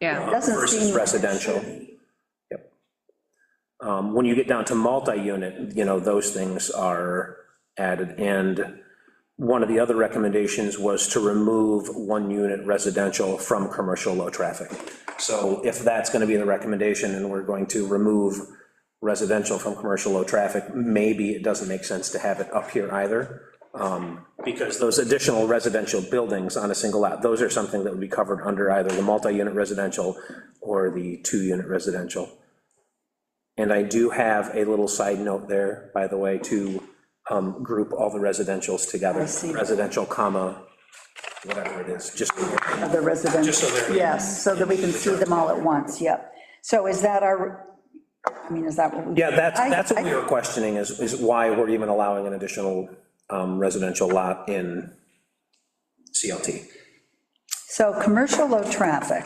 Yeah. Doesn't versus seem- residential. Yep. Um, When you get down to multi-unit, you know, those things are added. And one of the other recommendations was to remove one-unit residential from commercial low-traffic. So if that's going to be the recommendation, and we're going to remove residential from commercial low-traffic, maybe it doesn't make sense to have it up here either, um, because those additional residential buildings on a single lot, those are something that would be covered under either the multi-unit residential or the two-unit residential. And I do have a little side note there, by the way, to um, group all the residentials together. I see. Residential, comma, whatever it is, just, of the residential. Just so they're- Yes, so that we can see them all at once, yep. So is that our, I mean, is that what we? yeah, that's, I- that's what I- we were questioning, is, is why we're even allowing an additional um, residential lot in CLT. So commercial low traffic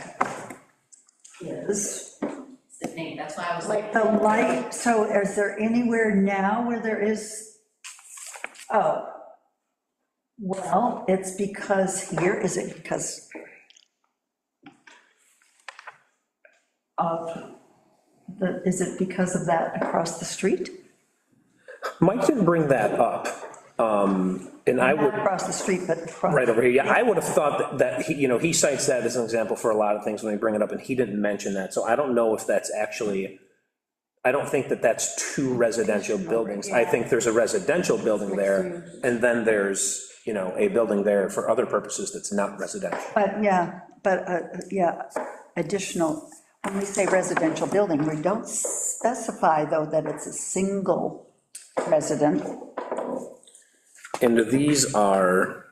is the name, that's why I was like like, the light, so is there anywhere now where there is, oh, well, it's because here, is it because of, the? is it because of that across the street? Mike didn't bring that up, um, and I would. Not across the street, but across. Right over here, yeah, I would have thought that- that, he- you know, he cites that as an example for a lot of things when they bring it up, and he didn't mention that, so I don't know if that's actually, I don't think that that's two residential buildings, I think there's a residential building there, and then there's, you know, a building there for other purposes that's not residential. But, yeah, but, uh, yeah, additional, when we say residential building, we don't specify, though, that it's a single resident. And these are,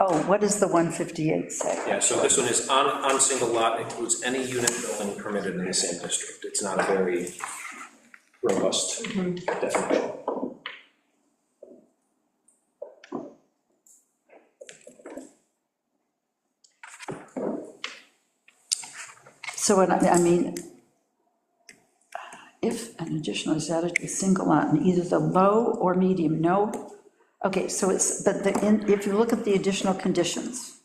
Oh, what does the 158 say? yeah, so this one is on, on single lot, includes any unit building permitted in the same district, it's not a very robust definition. So what, I I mean, if an additional is added to a single lot in either the low or medium, no, okay, so it's, but the, in- if you look at the additional conditions,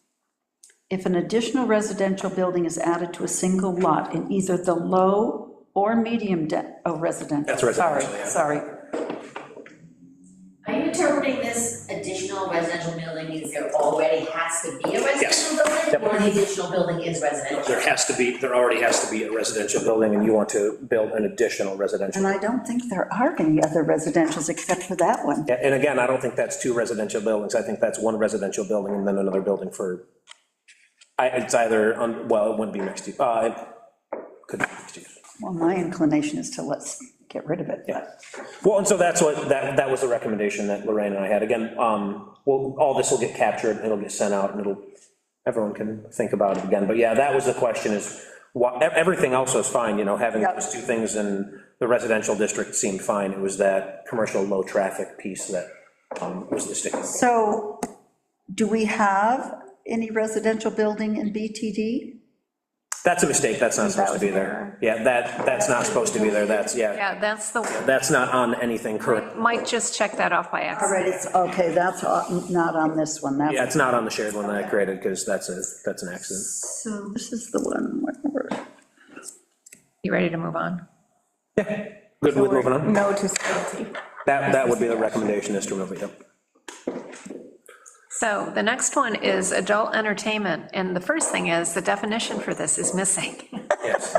if an additional residential building is added to a single lot in either the low or medium de, oh, residential. That's residential, yeah. Sorry, sorry. are you interpreting this additional residential building means there already has to be a residential building? Yep. Or the additional building is residential? There has to be, there already has to be a residential building, and you want to build an additional residential. And I don't think there are any other residentials except for that one. Yeah, And again, I don't think that's two residential buildings, I think that's one residential building and then another building for, I, it's either, on- well, it wouldn't be mixed use, uh, it could be mixed use. Well, my inclination is to let's get rid of it, but. Well, and so that's what, that, that was the recommendation that Lorraine and I had, again, um, well, all this will get captured, it'll get sent out, and it'll, everyone can think about it again, but yeah, that was the question, is, wha- e- everything else was fine, you know, having Yep. those two things in the residential district seemed fine, it was that commercial low-traffic piece that um, was the sticking. point. So, do we have any residential building in BTD? That's a mistake, that's not supposed to be there, yeah, that, that's not supposed to be there, that's, yeah, Yeah, that's the, that's not on anything current, Mike just checked that off by All accident. right, it's, okay, that's o- not on this one, yeah, that's, it's not on the shared one that I created, because that's a, that's an accident. so this is the one, whatever. You ready to move on? Good with moving on? No to CLT. That, that would be the recommendation, is to remove it, yep. So the next one is adult entertainment, and the first thing is, the definition for this is missing. Yes.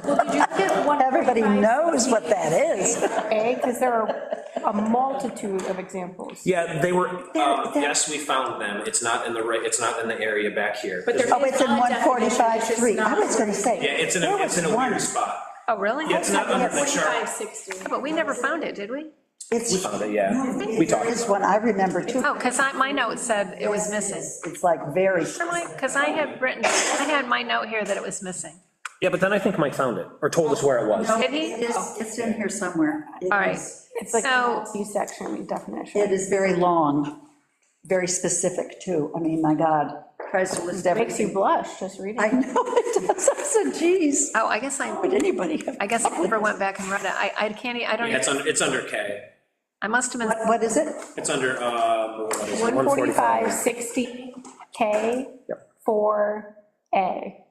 Everybody knows what that is. A, because there are a multitude of examples. Yeah, they were, um, that- yes, we found them, it's not in the, ra- it's not in the area back here. But there Oh, it's is in not a definition, it's just 145.3, I not- was gonna say. Yeah, it's in a, there it's in was a one. weird spot. Oh, really? Yeah, it's not under the chart. 560. But we never found it, did we? It's, Found it, yeah, we there talked. is one, I remember too, Oh, because I, my note said it was missing. it's like very, Because I had written, I had my note here that it was missing. Yeah, but then I think Mike found it, or told us where it was. Did it he? is, it's in here somewhere. It All right. is- It's like So- a C-section definition. It is very long, very specific, too. I mean, my God, tries to list Makes you everything. blush just reading. I it. know it does, I said, geez, Oh, I guess I, would anybody have? I guess I never went back and read it. I, I can't, e- I don't, Yeah, it's even- under, it's under K. I must have been, What- What is it? It's under, uh, what is it? 145, 60, K, 4A.